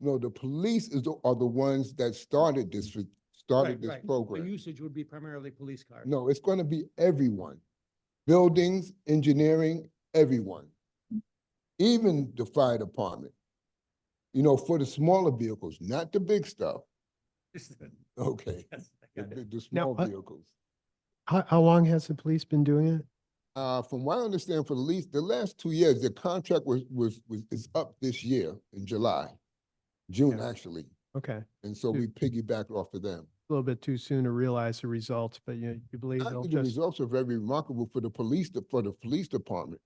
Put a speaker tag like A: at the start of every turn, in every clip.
A: No, the police is, the- are the ones that started this, started
B: Mm-hmm. Right,
A: this
B: right. The
A: program.
B: usage would be primarily police cars.
A: No, it's gonna be everyone. Buildings, engineering, everyone. Even the fire department. You know, for the smaller vehicles, not the big stuff,
B: Yes, I
A: okay? The,
B: got
A: bi-
B: it.
A: the
C: Now,
A: small
C: uh,
A: vehicles.
C: How, how long has the police been doing it?
A: Uh, from what I understand, for the least, the last two years, the contract was, was, was, is up this year in July. June,
C: Yeah.
A: actually,
C: Okay, a
A: and so
C: Yeah.
A: we piggybacked off of them.
C: little bit too soon to realize the results, but you, you believe
A: I
C: they'll
A: think the
C: just,
A: results are very remarkable for the police, de- for the police department.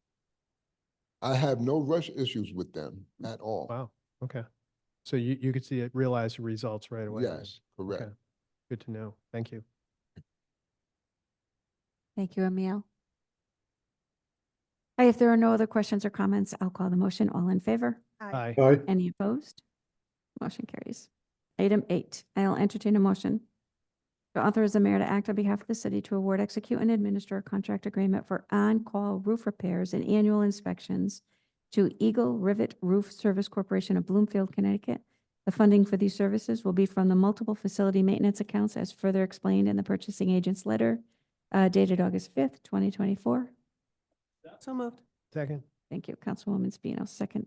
A: I have no rush issues with them
C: Mm-hmm.
A: at all.
C: wow, okay. So you, you could see it, realize the results right away. then.
A: Yes, correct.
C: Okay. Good to know. Thank you.
D: Thank you, Emile. All right, If there are no other questions or comments, I'll call the motion. All in favor?
C: Aye.
D: Any opposed? Motion carries. Item eight, I'll entertain a motion to authorize the mayor to act on behalf of the city to award, execute, and administer a contract agreement for on-call roof repairs and annual inspections to Eagle Rivet Roof Service Corporation of Bloomfield, Connecticut. The funding for these services will be from the multiple facility maintenance accounts as further explained in the purchasing agent's letter uh, dated August 5th, 2024.
C: So moved. Second.
D: Thank you, Councilwoman Spino, second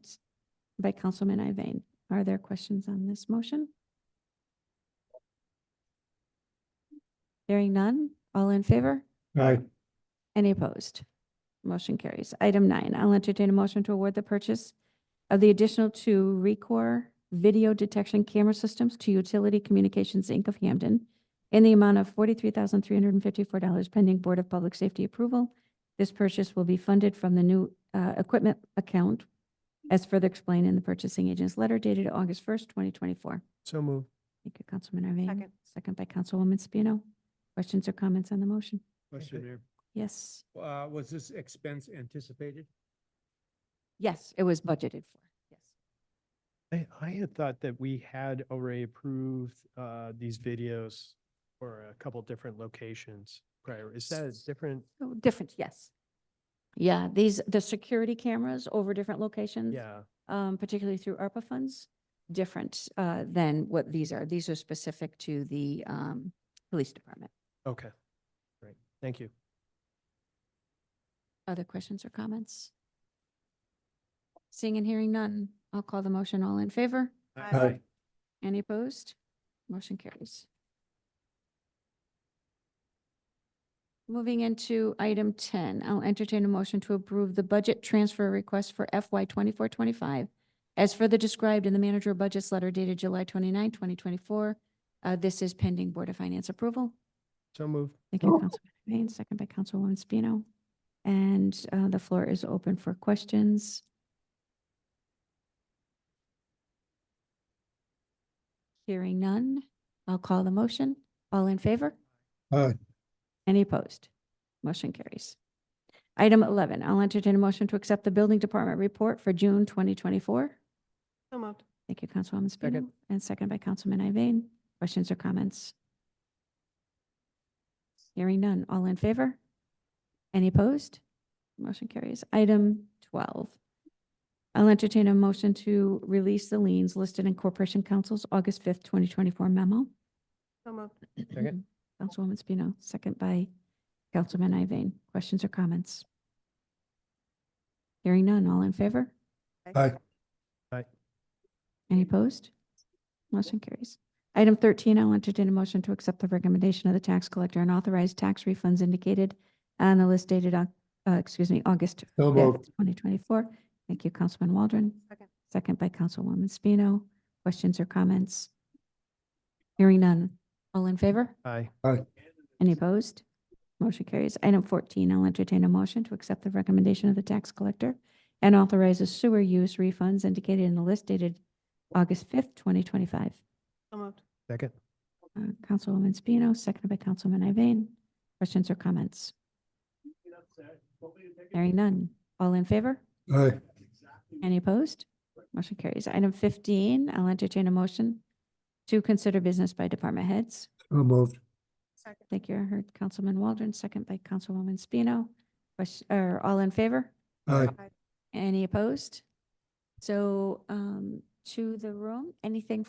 D: by Councilman Iveyne. Are there questions on this motion? Hearing none, all in favor?
C: Aye.
D: Any opposed? Motion carries. Item nine, I'll entertain a motion to award the purchase of the additional two Recor video detection camera systems to Utility Communications, Inc. of Hamden in the amount of forty-three thousand, three hundred and fifty-four dollars pending Board of Public Safety approval. This purchase will be funded from the new uh, equipment account as further explained in the purchasing agent's letter dated August first, twenty twenty-four.
C: So moved.
D: Thank you, Councilman Iveyne.
E: Second.
D: Second by Councilwoman Spino. Questions or comments on the motion?
B: Question there.
D: Yes.
B: Uh, was this expense anticipated?
D: Yes, it was budgeted for. Yes.
C: I, I had thought that we had already approved, uh, these videos for a couple different locations prior. Is that a different?
D: Oh, Different, yes. Yeah, these, the security cameras over different
A: Mm-hmm.
D: locations.
C: Yeah,
D: Um, particularly through ARPA funds, different, uh, than what these are. These are specific to the, um, police department.
C: okay. Great. Thank you.
D: Other questions or comments? Seeing and hearing none, I'll call the motion. All in favor?
E: Aye.
D: Any opposed? Motion carries. Moving into item ten, I'll entertain a motion to approve the budget transfer request for FY twenty-four, twenty-five as further described in the manager of budget's letter dated July 29, twenty-four. Uh, this is pending Board of Finance approval.
C: So moved.
D: Thank you, Councilman Iveyne, second by Councilwoman Spino. And, uh, the floor is open for questions. Hearing none, I'll call the motion. All in favor?
A: Aye.
D: Any opposed? Motion carries. Item eleven, I'll entertain a motion to accept the building department report for June twenty twenty-four.
E: So moved.
D: Thank you, Councilwoman
C: Second.
D: Spino, and second by Councilman Iveyne. Questions or comments? Hearing none. All in favor? Any opposed? Motion carries. Item 12. I'll entertain a motion to release the liens listed in Corporation Council's August 5th, 2024 memo.
E: So moved.
C: Second.
D: Councilwoman Spino, second by Councilman Iveyne. Questions or comments? Hearing none. All in favor?
A: Aye.
D: Any opposed? Motion carries. Item 13, I'll entertain a motion to accept the recommendation of the tax collector and authorize tax refunds indicated on the list dated, Oc- uh, excuse me, August 5th, 2024. Thank you, Councilman Waldron.
E: Second.
D: Second by Councilwoman Spino. Questions or comments? Hearing none. All in favor?
C: Aye.
D: Any opposed? Motion carries. Item 14, I'll entertain a motion to accept the recommendation of the tax collector and authorize the sewer use refunds indicated in the list dated August 5th, 2025.
E: So moved.
C: Second.
D: Uh, Councilwoman Spino, seconded by Councilman Iveyne. Questions or comments? Hearing none. All in favor?
A: Aye.
D: Any opposed? Motion carries. Item 15, I'll entertain a motion to consider business by department heads.
A: moved.
E: Second.
D: Thank you. I heard Councilman Waldron, second by Councilwoman Spino. Question, or all in favor?
A: Aye.
E: Aye.
D: Any opposed? So, um, to the room. Anything